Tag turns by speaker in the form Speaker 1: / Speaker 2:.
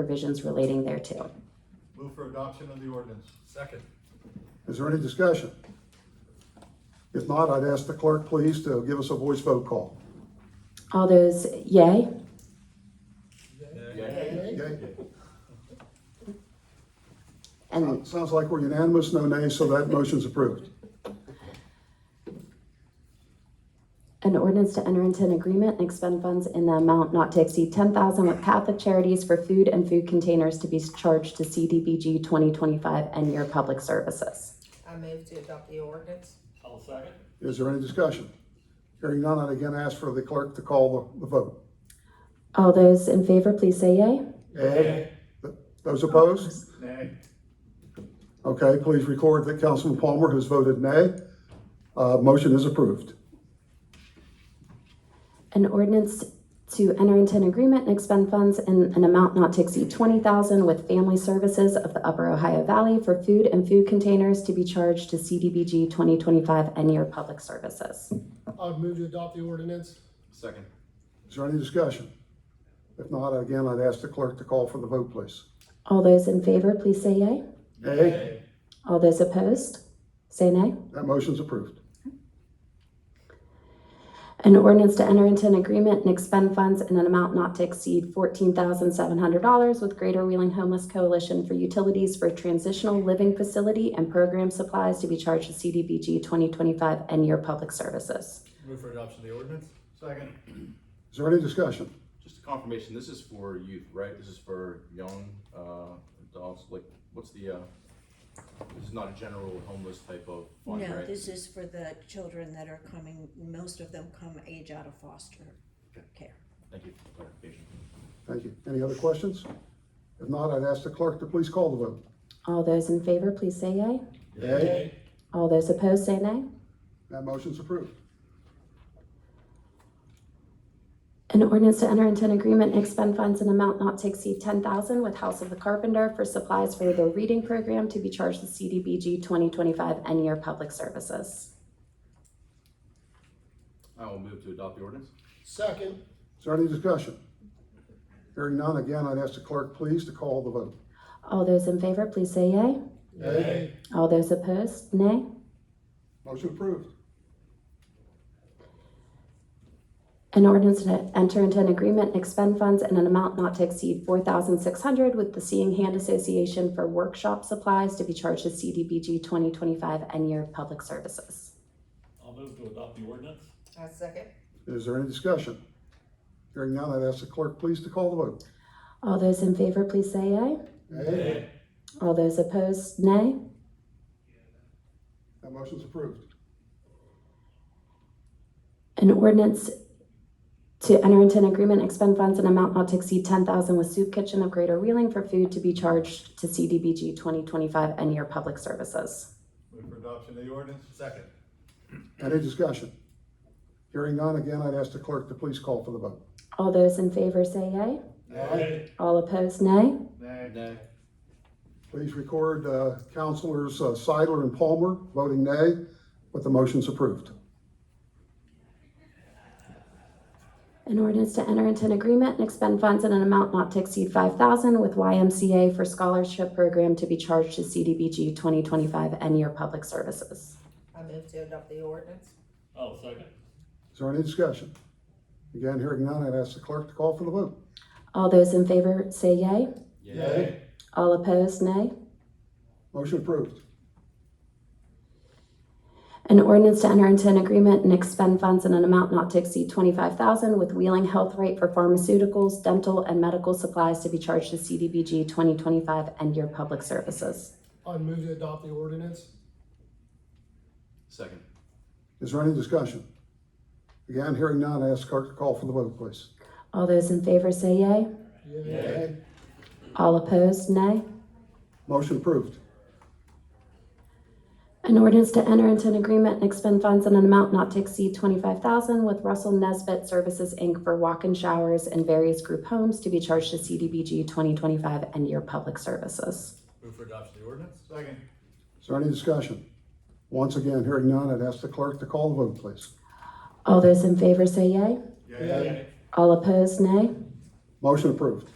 Speaker 1: provisions relating thereto.
Speaker 2: Move for adoption of the ordinance.
Speaker 3: Second.
Speaker 4: Is there any discussion? If not, I'd ask the clerk, please, to give us a voice vote call.
Speaker 1: All those yay?
Speaker 4: Yay?
Speaker 1: And
Speaker 4: Sounds like we're unanimous, no nays, so that motion's approved.
Speaker 1: an ordinance to enter into an agreement and expend funds in the amount not to exceed ten thousand with Catholic Charities for food and food containers to be charged to CDBG twenty twenty-five and your public services.
Speaker 5: I move to adopt the ordinance.
Speaker 3: I'll second.
Speaker 4: Is there any discussion? Hearing none, I'd again ask for the clerk to call the, the vote.
Speaker 1: All those in favor, please say yay.
Speaker 4: Yay? Those opposed?
Speaker 2: Nay.
Speaker 4: Okay, please record that Councilman Palmer has voted nay. Uh, motion is approved.
Speaker 1: An ordinance to enter into an agreement and expend funds in an amount not to exceed twenty thousand with Family Services of the Upper Ohio Valley for food and food containers to be charged to CDBG twenty twenty-five and your public services.
Speaker 6: I'd move to adopt the ordinance.
Speaker 2: Second.
Speaker 4: Is there any discussion? If not, again, I'd ask the clerk to call for the vote, please.
Speaker 1: All those in favor, please say yea.
Speaker 4: Yay?
Speaker 1: All those opposed, say nay.
Speaker 4: That motion's approved.
Speaker 1: An ordinance to enter into an agreement and expend funds in an amount not to exceed $14,700 with Greater Wheeling Homeless Coalition for utilities for transitional living facility and program supplies to be charged to CDBG 2025 and your public services.
Speaker 3: Move for adoption of the ordinance?
Speaker 2: Second.
Speaker 4: Is there any discussion?
Speaker 7: Just a confirmation, this is for youth, right? This is for young, uh, adults, like, what's the, uh, this is not a general homeless type of fund,
Speaker 8: No,
Speaker 7: right?
Speaker 8: this is for the children that are coming, most of them come age out of foster care.
Speaker 7: Thank you for the clarification.
Speaker 4: Thank you. Any other questions? If not, I'd ask the clerk to please call the vote.
Speaker 1: All those in favor, please say yea.
Speaker 4: Yay.
Speaker 1: All those opposed, say nay.
Speaker 4: That motion's approved.
Speaker 1: An ordinance to enter into an agreement and expend funds in amount not to exceed ten thousand with House of the Carpenter for supplies for the reading program to be charged to CDBG twenty twenty-five and your public services.
Speaker 7: I will move to adopt the ordinance.
Speaker 6: Second,
Speaker 4: Is there any discussion? Hearing none, again, I'd ask the clerk please to call the vote.
Speaker 1: All those in favor, please say yea.
Speaker 4: Yay.
Speaker 1: All those opposed, nay.
Speaker 4: Motion approved.
Speaker 1: An ordinance to enter into an agreement and expend funds in an amount not to exceed four thousand six hundred with the Seeing Hand Association for workshop supplies to be charged to CDBG twenty twenty-five and your public services.
Speaker 3: I'll move to adopt the ordinance?
Speaker 5: I second.
Speaker 4: Is there any discussion? Hearing none, I'd ask the clerk please to call the vote.
Speaker 1: All those in favor, please say yea.
Speaker 4: Yay.
Speaker 1: All those opposed, nay.
Speaker 4: That motion's approved.
Speaker 1: An ordinance to enter into an agreement, and expend funds in amount not to exceed ten thousand with Soup Kitchen of Greater Wheeling for food to be charged to CDBG twenty twenty-five and your public services.
Speaker 2: Move for adoption of the ordinance.
Speaker 3: Second.
Speaker 4: Any discussion? Hearing none, again, I'd ask the clerk to please call for the vote.
Speaker 1: All those in favor say yea.
Speaker 2: Nay.
Speaker 1: All opposed, nay.
Speaker 2: Nay.
Speaker 7: Nay.
Speaker 4: Please record uh, Councilors uh, Seidler and Palmer voting nay, but the motion's approved.
Speaker 1: An ordinance to enter into an agreement and expend funds in an amount not to exceed five thousand with YMCA for scholarship program to be charged to CDBG twenty twenty-five and your public services.
Speaker 5: I move to adopt the ordinance.
Speaker 3: I'll Oh, second.
Speaker 4: Is there any discussion? Again, hearing none, I'd ask the clerk to call for the vote.
Speaker 1: All those in favor say yea.
Speaker 7: Yay.
Speaker 1: All opposed, nay.
Speaker 4: Motion approved.
Speaker 1: An ordinance to enter into an agreement and expend funds in an amount not to exceed twenty-five thousand with Wheeling Health Right for pharmaceuticals, dental, and medical supplies to be charged to CDBG twenty twenty-five and your public services.
Speaker 6: I'd move to adopt the ordinance.
Speaker 7: Second.
Speaker 4: Is there any discussion? Again, hearing none, I ask the clerk to call for the vote, please.
Speaker 1: All those in favor say yea.
Speaker 6: Yay.
Speaker 1: All opposed, nay.
Speaker 4: Motion approved.
Speaker 1: An ordinance to enter into an agreement and expend funds in an amount not to exceed twenty-five thousand with Russell Nesbitt Services, Inc. for walk-in showers and various group homes to be charged to CDBG twenty twenty-five and your public services.
Speaker 3: Move for adoption of the ordinance?
Speaker 2: Second.
Speaker 4: Is there any discussion? Once again, hearing none, I'd ask the clerk to call the vote, please.
Speaker 1: All those in favor say yea.
Speaker 2: Yay.
Speaker 1: All opposed, nay.
Speaker 4: Motion approved.